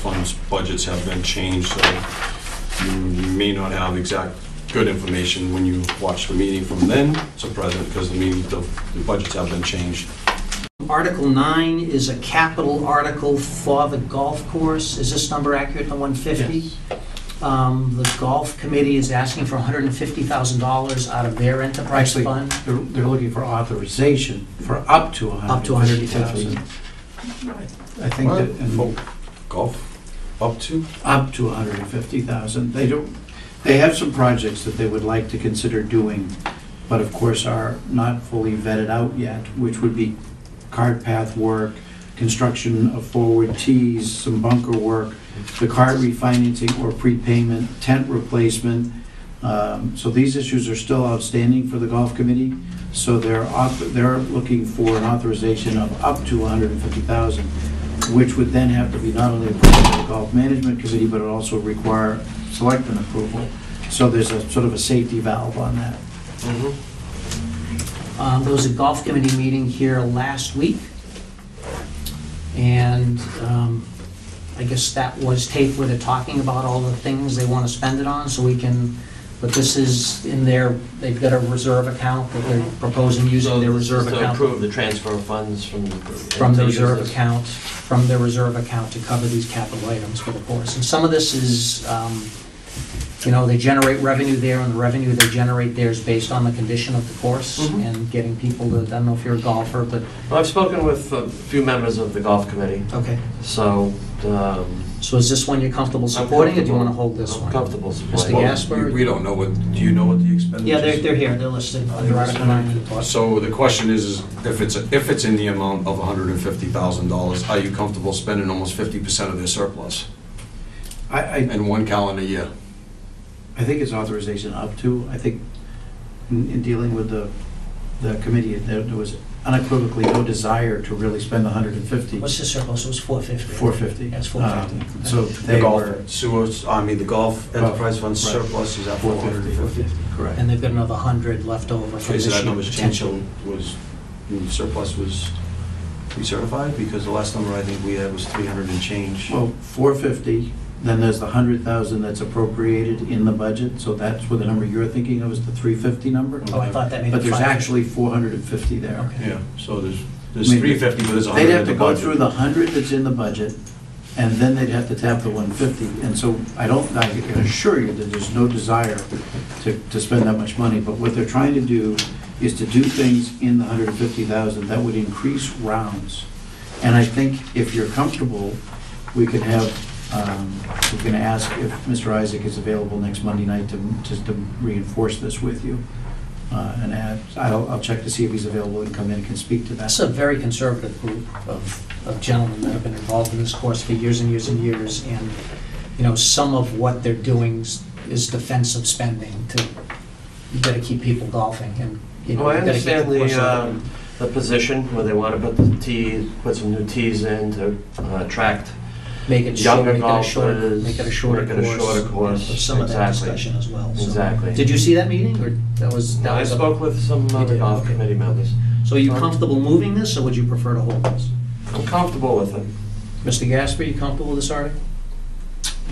funds budgets have been changed, so you may not have exact good information when you watch the meeting from then to present, because the meeting, the the budgets have been changed. Article 9 is a capital article for the golf course. Is this number accurate, the 150? Um, The golf committee is asking for $150,000 out of their enterprise Actually- fund. They're, they're looking for authorization for up to a hundred. Up to 150,000. I think that, and Golf, up to? up to a hundred and fifty thousand. They don't, they have some projects that they would like to consider doing, but of course are not fully vetted out yet, which would be cart path work, construction of forward tees, some bunker work, the cart refinancing or prepayment, tent replacement. Um, So these issues are still outstanding for the golf committee, so they're, auth- they're looking for an authorization of up to 150,000, which would then have to be not only approved by the golf management committee, but it also require selectmen approval. So there's a sort of a safety valve on that. Um, There was a golf committee meeting here last week, and um, I guess that was taped where they're talking about all the things they want to spend it on, so we can, but this is in their, they've got a reserve account that they're proposing using their reserve So to account. approve the transfer of funds from the... from the reserve account, from the reserve account to cover these capital items for the course. And some of this is, um, you know, they generate revenue there, and the revenue they generate there is based on the condition of the course Mhm. and getting people to, I don't know if you're a golfer, but, Well, I've spoken with a few members of the golf committee, okay. so... um, So is this one you're comfortable supporting, or do you want to hold this I'm one? Comfortable Mr. supporting. Well, Gasper? We we don't know what, do you know what the expenditure is? Yeah, they're, they're here, Oh, they're listed under Article 9. So the question is, is if it's, if it's in the amount of $150,000, are you comfortable spending almost 50% of their surplus I, I, in one calendar year? I think it's authorization up to, I think in in dealing with the, the committee, there there was unequivocally no desire to really spend 150, What's the surplus, it was 450? 450. Yes, Um, 450. So they were. sewers, I mean, the golf enterprise fund right. is at 450. Correct. And they've got another 100 left over from Okay, this so that year, number's changed, potential. so was, the surplus was recertified? Because the last number I think we had was 300 and change. Well, 450, then there's the 100,000 that's appropriated in the budget, so that's what the number you're thinking of is the 350 number? Oh, I thought that made it But there's 550. actually 450 there. Okay. Yeah, so there's, there's I mean, 350, but there's 100 They'd in have the to go through budget. the 100 that's in the budget, and then they'd have to tap the 150. And so I don't, I can assure you that there's no desire to, to spend that much money, but what they're trying to do is to do things in the 150,000 that would increase rounds. And I think if you're comfortable, we could have, um, we're going to ask if Mr. Isaac is available next Monday night to, just to reinforce this with you. Uh, And add, I'll, I'll check to see if he's available and come in and can speak to that. That's a very conservative group of, of gentlemen that have been involved in this course for years and years and years, and, you know, some of what they're doing s- is defensive spending to, you gotta keep people golfing, and, you know, Well, Oh, I you gotta keep understand the course the, open. um, the position where they want to put the tees, put some new tees in to uh, attract Make it short, younger make it a shorter, golfers, make it a shorter make course. it a shorter course, There's Some of that exactly. discussion as well, so. Exactly. Did you see that meeting, or that was, that I was, a- spoke with some You other did, golf okay. committee members. so are you comfortable moving this, or would you prefer to hold this? I'm comfortable with it. Mr. Gasper, you comfortable with this article?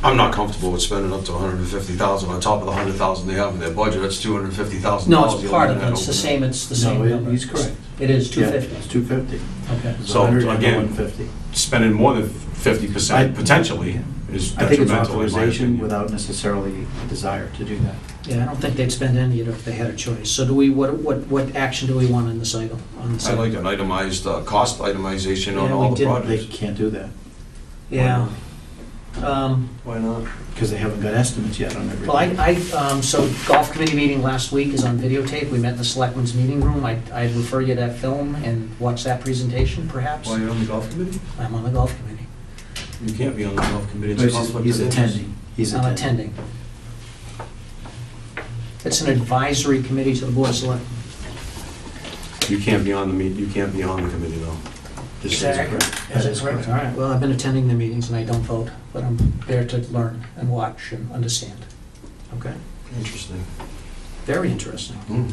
I'm not comfortable with spending up to 150,000 on top of the 100,000 they have in their budget, that's 250,000. No, Oh, it's part of it, it's the same, it's the No, same it- number. he's correct. It is two Yeah, fifty, It's 250. okay. It's So, 100 and again, 150. Spending more than 50% I- potentially is I think it's detrimental in my authorization opinion. without necessarily a desire to do that. Yeah, I don't think they'd spend any of it if they had a choice. So do we, what, what, what action do we want in this item? on this I item? like an itemized, uh, cost itemization on Yeah, all we the did. They projects. can't do that Yeah. Um, Why not? because they haven't got estimates yet on Well, I, everything. I, um, so golf committee meeting last week is on videotape. We met in the selectmen's meeting room. I, I'd refer you to that film and watch that presentation perhaps. you're on the golf committee? I'm on the golf committee. You can't be on the golf committee, it's a He's- conflict He's of interest. attending. He's I'm attending. attending. It's an advisory committee to the board of selectmen. You can't be on the meet, you can't be on the committee though. Just as a- Is it correct? All right, well, I've been attending the meetings and I don't vote, but I'm there to learn and watch and understand. Okay? Interesting. Very interesting. Hmm.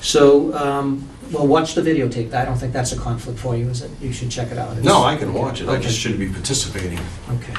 So, um, well, watch the videotape. I don't think that's a conflict for you, is it? You should check it out. It's- No, I can watch it, I Okay. just shouldn't be participating. Okay.